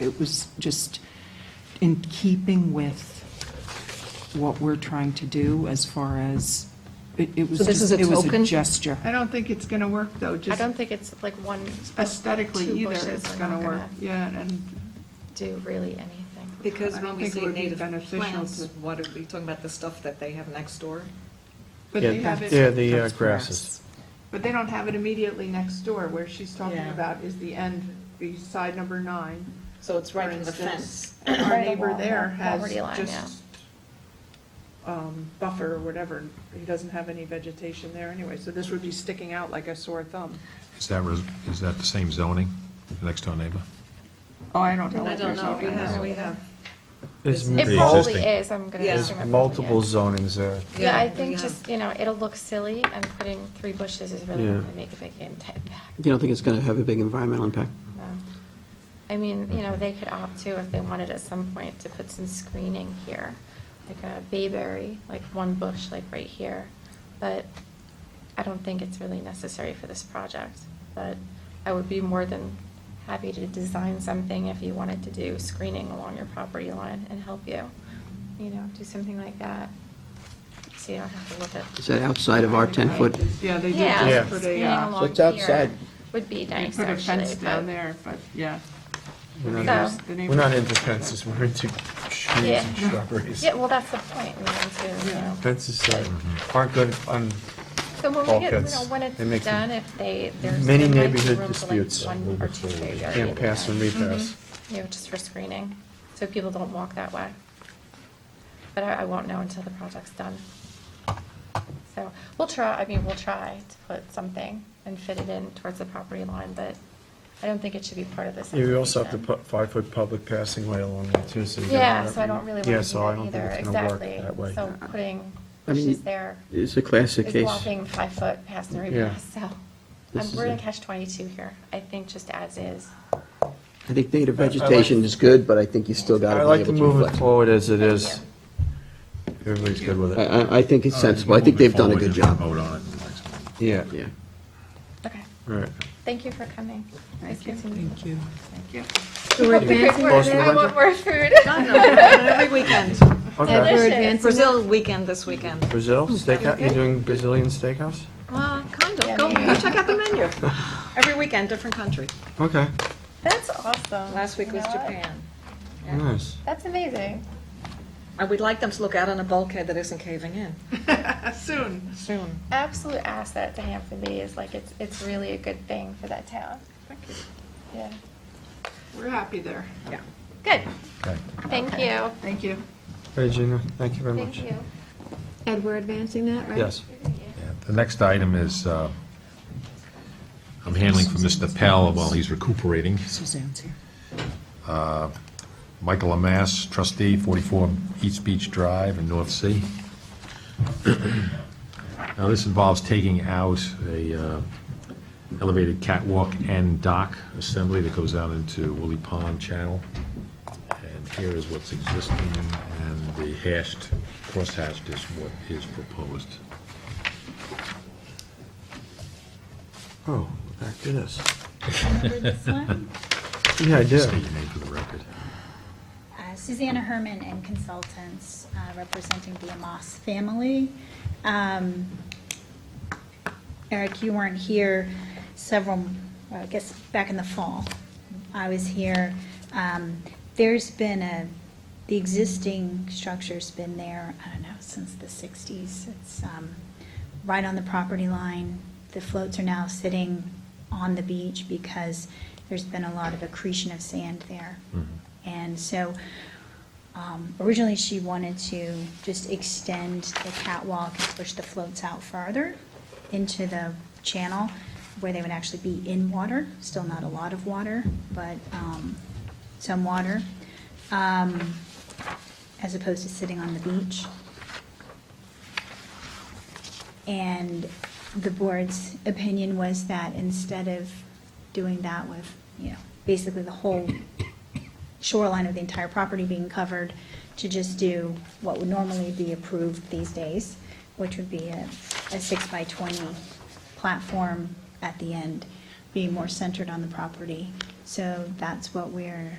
It was just in keeping with what we're trying to do as far as, it it was So this just, is a it was a token? gesture. I don't think it's going to work, though, I just don't think it's like one. aesthetically two either, bushes it's are going not to work. Yeah, and Do really anything. Because I when don't we think it say would be native beneficial plants, to- what are we talking about, the stuff that they have next door? But Yeah, they have it. Yeah, the uh, That's grasses. But they don't have it immediately next door, where she's talking Yeah. about is the end, the side number nine. So it's right in the for fence. instance. And Our Right neighbor along there the has property line, just, um, buffer or whatever, he doesn't have any vegetation there anyway, so this would be sticking out like a sore thumb. Is that, res- is that the same zoning, next door neighbor? Oh, I don't know I what don't there's know, over we have, there. we have, There's It It Pre-existing. probably mul- is, I'm gonna Yeah. there's assume. it probably multiple is. zonings there. Yeah, I Yeah, think yeah. just, you know, it'll look silly and putting three bushes is really Yeah. not gonna make a big impact. You don't think it's going to have a big environmental impact? No. I mean, you know, they could opt to, if they wanted at some point, to put some screening here, like a bayberry, like one bush, like right here. But I don't think it's really necessary for this project. But I would be more than happy to design something if you wanted to do screening along your property line and help you, you know, do something like that. So you don't have to look at. Is that outside of our 10-foot? Yeah, they do Yeah, just Yeah. put screening a, uh, along So it's outside. here would be they nice, put a actually. fence down but- there, but, yeah. We're The not- neighbors- the We're not neighbors- into fences, we're into trees and Yeah. shrubberies. Yeah, well, that's the point, we want to, you know. Fences uh, aren't um, good on So when we get, you know, bulkheads. when They make it's them- done, if they, there's. Many there might be neighborhood room for, like, disputes. One or two bays or Can't either pass and way. repass. You know, just for screening, so people don't walk that way. But I, I won't know until the project's done. So we'll try, I mean, we'll try to put something and fit it in towards the property line, but I don't think it should be part of this. Yeah, You also have to application. put five-foot public passing way along there too, so you. don't Yeah, want- so I don't really want to Yeah, do so I don't that think either, it's gonna work exactly. that way. So putting I mean, bushes there. It's a classic is case. walking five foot past the Yeah. repass, so. This um, is We're in it. catch twenty-two here. I think just as is. I think native vegetation is good, but I think you still got I to like be to able to move it reflect. forward as it Thank is. you. Everybody's good with I, it. I- I think it's sensible. I think they've done a good job. Vote on it in the next one. Yeah, Yeah. Okay, all right. thank you for coming. Nice Thank you. meeting you. Thank you. Yeah. So we're advancing, I want more food. every weekend, Okay. we're advancing. Brazil weekend this weekend. Brazil, steakhouse, you're doing Brazilian steakhouse? Well, kind Yeah, of, go, maybe. go check out the menu. Every weekend, different country. Okay, That's awesome. Last week You was know what? Japan. nice. That's amazing. And we'd like them to look out on a bulkhead that isn't caving in Soon. soon. Absolute asset to Hampton Bay is like, it's, it's really a good thing for that town. Yeah. We're happy there. Good, Okay. thank you. Thank you. Hey Gina, thank you very much. Thank you. Ed, we're advancing that, right? Yes. Yeah, The next item is, uh, I'm handling for Mr. Pell while he's recuperating. Suzanne's here. Michael Amass, trustee, 44 East Beach Drive in North Sea. Now, this involves taking out a uh, elevated catwalk and dock assembly that goes out into Woolly Pond Channel. And here is what's existing, and the hashed, crosshatched is what is proposed. Oh, back to this. Remember this one? Yeah, I do. State your name for the record. Uh, Susanna Herman and consultants uh, representing the Amos family. Um, Eric, you weren't here several, well, I guess, back in the fall. I was here. Um, There's been a, the existing structure's been there, I don't know, since the 60s. It's um, right on the property line. The floats are now sitting on the beach because there's been a lot of accretion of sand there. And so um, originally, she wanted to just extend the catwalk and push the floats out farther into the channel where they would actually be in water, still not a lot of water, but um, some water, um, as opposed to sitting on the beach. And the board's opinion was that instead of doing that with, you know, basically the whole shoreline of the entire property being covered, to just do what would normally be approved these days, which would be a, a six by twenty platform at the end, being more centered on the property. So that's what we're